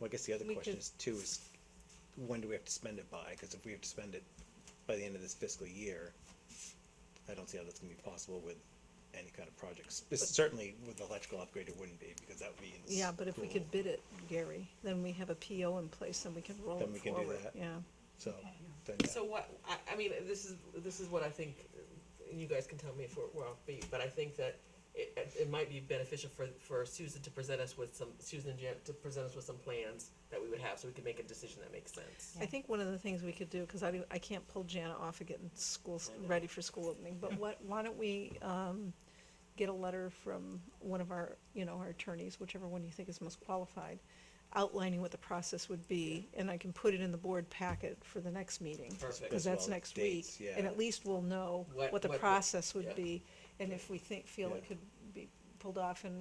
Well, I guess the other We question could- is too, is when do we have to spend it by? Cause if we have to spend it by the end of this fiscal year, I don't see how that's gonna be possible with any kind of project. Spe- Certainly with the electrical upgrade, it wouldn't be, because that would be in Yeah, but if we school. could bid it, Gary, then we have a PO in place and we can roll Then it we can do forward, that. yeah. So, then, yeah. So what, I, I mean, this is, this is what I think, and you guys can tell me if we're, we're offbeat, but I think that it, it might be beneficial for, for Susan to present us with some, Susan and Jan, to present us with some plans that we would have, so we could make a decision that makes sense. I think one of the things we could do, cause I, do- I can't pull Jana off of getting schools I know. ready for school opening, but what, why don't we, um, get a letter from one of our, you know, our attorneys, whichever one you think is most qualified, outlining what the process would be, and I can put it in the board packet for the next meeting. Perfect. Cause that's well, next week, dates, and yeah. at least we'll know What- what the what- process would yeah. be, and if we think, feel it Yeah. could be pulled off and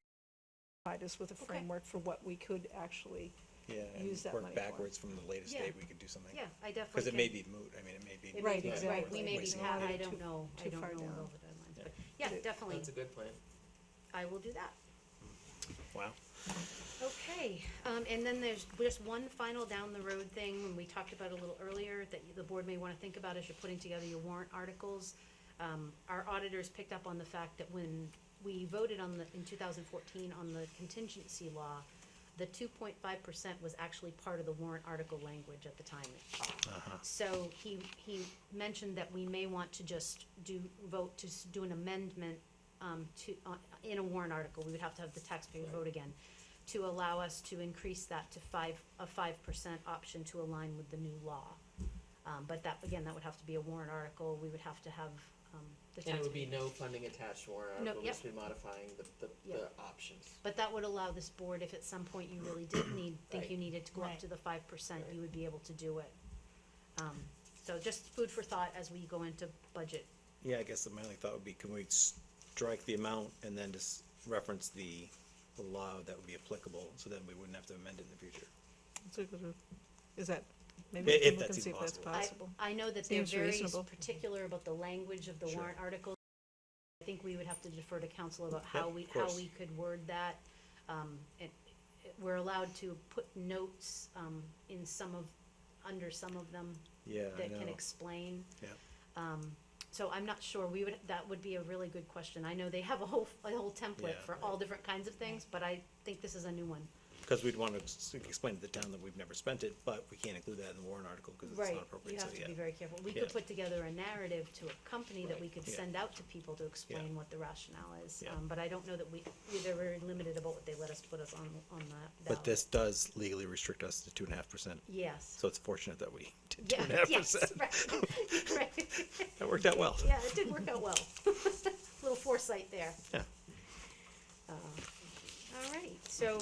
provide us with a Okay. framework for what we could actually, yeah, use and that money work for. backwards from the latest Yeah. date, we could do something. Yeah, I definitely. Cause it can- may be moot, I mean, it may be. It Right, may be, right, exactly. we may be, Wasting have, I money. Too- don't know, I too don't know far down. over the lines, Yeah. but, yeah, It- definitely, That's a good plan. I will do that. Wow. Okay, um, and then there's just one final down the road thing, and we talked about it a little earlier, that the board may wanna think about as you're putting together your warrant articles. Um, our auditors picked up on the fact that when we voted on the, in two thousand fourteen, on the contingency law, the two point five percent was actually part of the warrant article language at the time. So he, he mentioned that we may want to just do, vote to s- do an amendment, um, to, uh, in a warrant article, we would have to have the taxpayer vote again, to allow us to increase that to five, a five percent option to align with the new law. Um, but that, again, that would have to be a warrant article, we would have to have, um, the And it taxpayer. would be no funding attached warrant No, article, we'll yep. just be modifying the, the, the Yep. options. But that would allow this board, if at some point you really did need, think you needed to go up Right. to the five percent, Right. you would be able to do it. Um, so just food for thought as we go into budget Yeah, I guess my only thought would be, can we strike the amount and then just reference the the law that would be applicable, so then we wouldn't have to amend it in the future? It's a good- Is that, maybe we If can look that's and see if even that's possible. I- possible. I know that they're Seems very reasonable. particular about the language of the Sure. warrant article. I think we would have to defer to council about how Yep, we, of how course. we could word that. Um, it, it- we're allowed to put notes, um, in some of, under some of them Yeah, I that can know. explain. Yeah, So I'm not sure, we would, that would be a really good question. I know they have a whole, a whole template Yeah. for all different kinds of things, but I think this is a new one. because we'd want to s- explain to the town that we've never spent it, but we can't include that in the warrant article because it's Right, not appropriate, you so have to yeah. be very careful. We Yeah. could put together a narrative to accompany that we could Yeah. send out to people to explain Yeah. what the rationale is. Yeah. Um, but I don't know that we, we- they're very limited about what they let us put us on, on that ballot. But this does legally restrict us to two and a half percent, Yes. so it's fortunate that we did two Yeah, and a half yes, percent. right, right. That worked out well. Yeah, it did work out well. Little foresight there. Yeah. All right, so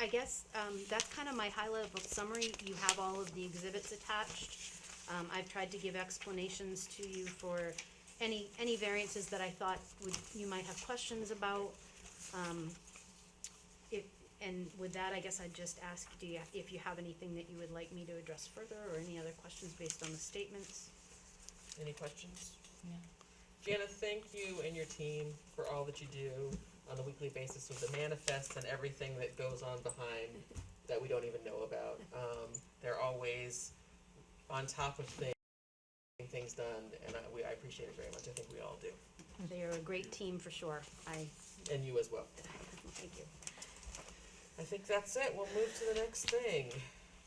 I guess, um, that's kind of my high level summary. You have all of the exhibits attached. Um, I've tried to give explanations to you for any, any variances that I thought would, you might have questions about. Um, if, and with that, I guess I'd just ask, do you, if you have anything that you would like me to address further or any other questions based on the statements? Any questions? No. Jana, thank you and your team for all that you do on a weekly basis with the manifests and everything that goes on behind that we don't even know about. Um, they're always on top of things, getting things done, and I, we, I appreciate it very much. I think we all do, They are a great team for sure. I, and you as well. thank you. I think that's it. We'll move to the next thing.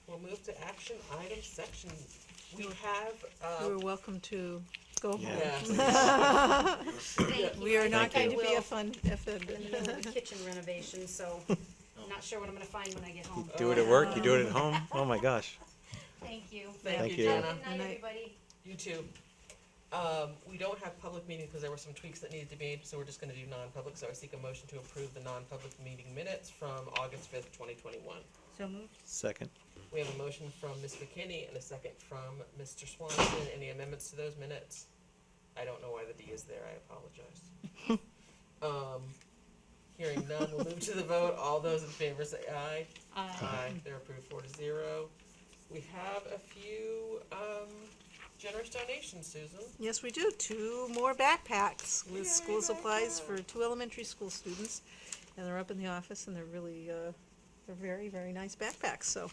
We'll move to action item section. We have, You're uh, welcome to go home. yeah, Thank you. We are I not think I going to be will. offend- in the middle offended. of the kitchen renovation, so not sure what I'm gonna find when I get home. Do it at work, you do it at home, oh my gosh. Thank you. thank Thank you, you. Jana. Have a good Night. night, everybody. You too. Um, we don't have public meeting because there were some tweaks that needed to be made, so we're just gonna do non-public, so I seek a motion to approve the non-public meeting minutes from August fifth, twenty twenty-one. So moved. Second, We have a motion from Ms. McKinney and a second from Mr. Swanson. Any amendments to those minutes? I don't know why the D is there, I apologize. Um, hearing none, we'll move to the vote. All those in favor say aye. Aye, they're approved four to zero. We have a few, um, generous donations, Susan. Yes, we do. Two more backpacks Yay, with school supplies for backpacks. two elementary school students. And they're up in the office and they're really, uh, they're very, very nice backpacks, so